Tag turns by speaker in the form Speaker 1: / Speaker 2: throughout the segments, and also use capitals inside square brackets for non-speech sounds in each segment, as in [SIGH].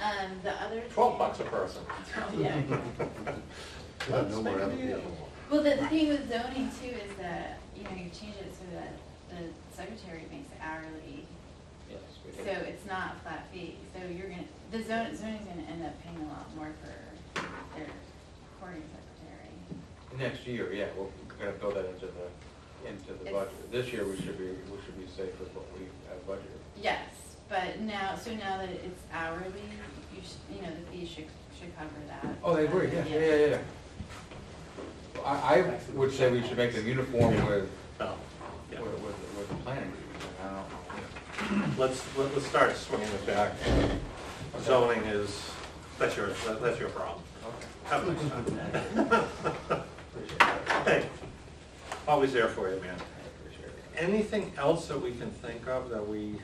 Speaker 1: Um, the other.
Speaker 2: Twelve bucks a person.
Speaker 1: [LAUGHS] Yeah.
Speaker 2: Let's
Speaker 3: No
Speaker 2: make
Speaker 3: more
Speaker 2: a
Speaker 3: application.
Speaker 2: deal.
Speaker 1: Well, the thing with zoning too is that, you know, you change it so that the secretary makes it hourly,
Speaker 4: Yes, we
Speaker 1: so
Speaker 4: do.
Speaker 1: it's not a flat fee. So you're gonna, the zone, zoning's gonna end up paying a lot more for their recording secretary.
Speaker 4: Next year, yeah, we're gonna build that into the, into the
Speaker 1: It's-
Speaker 4: budget. This year, we should be, we should be safe with what we have budgeted.
Speaker 1: Yes, but now, so now that it's hourly, you should, you know, the fee should, should cover that.
Speaker 4: Oh, I agree, yeah, yeah, yeah, yeah. I, I would say we should make them uniform with,
Speaker 2: No,
Speaker 4: with,
Speaker 2: Oh, yeah.
Speaker 4: with with the planning. I don't know.
Speaker 2: Let's, let- let's start swinging it back. Zoning is, that's your, that- that's your problem.
Speaker 4: Okay.
Speaker 2: Have a nice time.
Speaker 4: [LAUGHS]
Speaker 2: Hey, always there for you, man.
Speaker 4: I appreciate it.
Speaker 2: Anything else that we can think of that we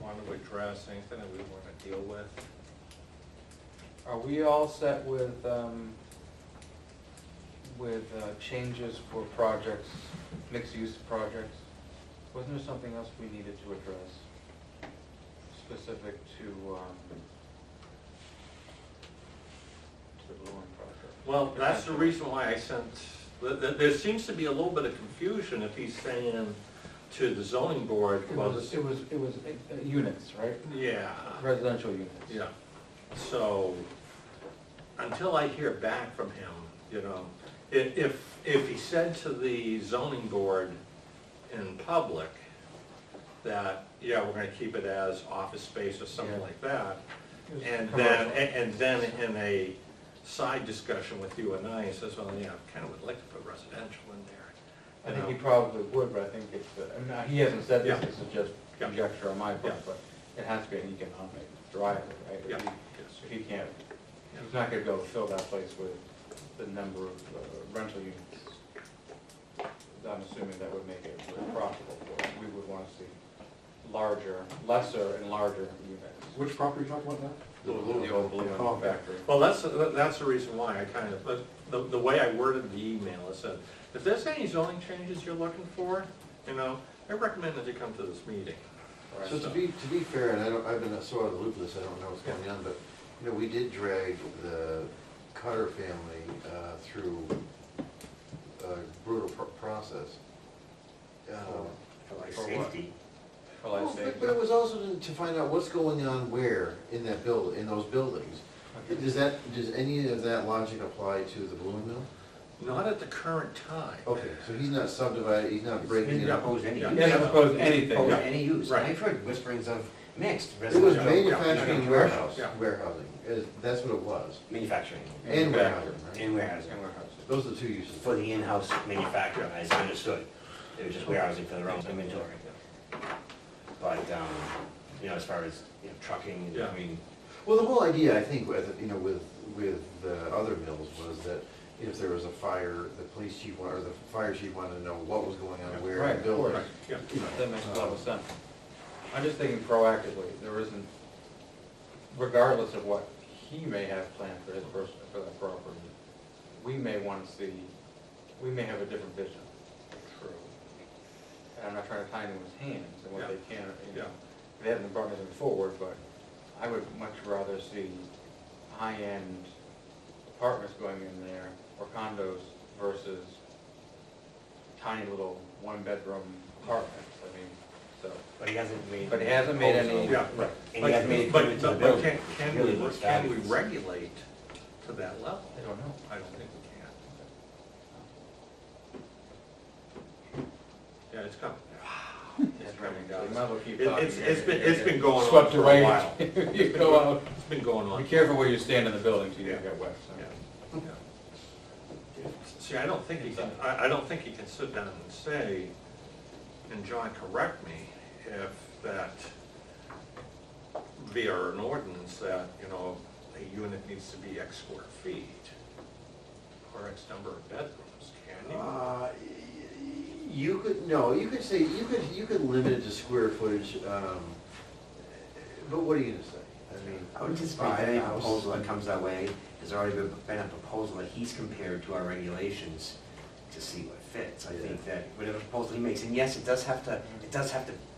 Speaker 2: want to address, anything that we want to deal with?
Speaker 4: Are we all set with, um, with uh, changes for projects, mixed-use projects? Wasn't there something else we needed to address specific to, um, to the Blue Line project?
Speaker 2: Well, that's the reason why I sent, th- th- there seems to be a little bit of confusion if he's saying to the zoning board,
Speaker 4: It
Speaker 2: well,
Speaker 4: was,
Speaker 2: this,
Speaker 4: it was, it was uh, units, right?
Speaker 2: yeah,
Speaker 4: Residential units.
Speaker 2: Uh, yeah. So, until I hear back from him, you know, i- if, if he said to the zoning board in public that, yeah, we're gonna keep it as office space or something
Speaker 4: Yeah.
Speaker 2: like that,
Speaker 4: It was
Speaker 2: And then,
Speaker 4: commercial.
Speaker 2: and and then in a side discussion with you and I, he says, well, yeah, I kind of would like to put residential in there.
Speaker 4: I
Speaker 2: you
Speaker 4: think he
Speaker 2: know.
Speaker 4: probably would, but I think it's, uh, I mean, he hasn't said this,
Speaker 2: Yeah.
Speaker 4: this is just
Speaker 2: Yeah.
Speaker 4: conjecture on my part,
Speaker 2: Yeah.
Speaker 4: but it has to be an economic driver, right? If
Speaker 2: Yeah.
Speaker 4: he- If he can't, he's not gonna go fill that place with the number of uh, rental units. I'm assuming that would make it profitable for him. We would wanna see larger, lesser and larger units.
Speaker 3: Which property are you talking about now?
Speaker 4: The old blue
Speaker 3: Oh,
Speaker 4: one
Speaker 3: okay.
Speaker 4: factory.
Speaker 2: Well, that's, that's the reason why I kind of, but the, the way I worded the email, is that if there's any zoning changes you're looking for, you know, I recommend that you come to this meeting.
Speaker 4: Right.
Speaker 3: So to be, to be fair, and I don't, I've been so out of the loop of this, I don't know what's going on, but, you know, we did drag the Cutter family uh, through a brutal pro- process. Um,
Speaker 4: safety. Well, I
Speaker 3: Well,
Speaker 4: say,
Speaker 3: But but it was also to- to find out what's going on where in that build, in those buildings.
Speaker 4: Okay.
Speaker 3: Does that, does any of that logic apply to the balloon mill?
Speaker 2: Not at the current time.
Speaker 3: Okay, so he's not subdividing, he's not breaking
Speaker 5: He
Speaker 3: it up.
Speaker 5: proposed any
Speaker 2: Yeah.
Speaker 4: he doesn't propose anything,
Speaker 5: Proposed
Speaker 4: no.
Speaker 5: any use.
Speaker 2: Right.
Speaker 5: I've heard whisperings of mixed
Speaker 3: It was
Speaker 5: residential.
Speaker 3: manufacturing
Speaker 2: yeah.
Speaker 3: warehouse,
Speaker 2: Yeah.
Speaker 3: warehousing, is- that's what it was.
Speaker 5: Manufacturing.
Speaker 3: And warehousing, right?
Speaker 5: And warehousing.
Speaker 4: And warehouses.
Speaker 3: Those are the two uses.
Speaker 5: For the in-house manufacturer, as I understood. They were just warehousing for their own inventory. But, um, you know, as far as, you know, trucking,
Speaker 2: Yeah.
Speaker 5: I mean,
Speaker 3: Well, the whole idea, I think, with, you know, with, with the other mills was that if there was a fire, the police chief, wa- or the fire chief wanted to know what was going on, where
Speaker 4: Right,
Speaker 3: in
Speaker 4: of
Speaker 3: the building.
Speaker 2: Right, yeah.
Speaker 3: You know,
Speaker 4: That makes a lot of sense. I'm just thinking proactively, there isn't, regardless of what he may have planned for his person, for that property, we may want to see, we may have a different vision. True. And I'm not trying to tie anyone's hands and what they can, or, you know, they haven't brought anything forward, but I would much rather see high-end apartments going in there or condos versus tiny little one-bedroom apartments, I mean, so.
Speaker 5: but he hasn't made.
Speaker 4: But he hasn't made any-
Speaker 2: Yeah, right.
Speaker 5: And he hasn't made it
Speaker 2: But-
Speaker 5: into the
Speaker 2: but-
Speaker 5: building.
Speaker 2: But can, can
Speaker 5: Really
Speaker 2: we,
Speaker 5: looks
Speaker 2: can we
Speaker 5: fabulous.
Speaker 2: regulate to that level?
Speaker 4: I don't know.
Speaker 2: I don't think we can. Yeah, it's coming. It's coming
Speaker 4: So
Speaker 2: down.
Speaker 4: you might as well keep
Speaker 2: It-
Speaker 4: talking.
Speaker 2: it's- it's been- it's been going on
Speaker 4: Swept
Speaker 2: for a
Speaker 4: away.
Speaker 2: while.
Speaker 4: [LAUGHS] You go out.
Speaker 2: uh, It's been going
Speaker 4: Be
Speaker 2: on.
Speaker 4: careful where you stand in the building till you
Speaker 2: Yeah.
Speaker 4: get wet, so.
Speaker 2: Yeah, yeah. See, I don't think he can, I, I don't think he can sit down and say, and John, correct me, if that via an ordinance that, you know, a unit needs to be X square feet or X number of bedrooms, can you?
Speaker 3: Uh, You could, no, you could say, you could, you could limit it to square footage, um, but what are you gonna say? I mean.
Speaker 5: I would just think
Speaker 3: buy a
Speaker 5: that any
Speaker 3: house.
Speaker 5: proposal that comes that way, there's already been been a proposal that he's compared to our regulations to see what fits. I think that whatever proposal he makes, and yes, it does have to, it does have to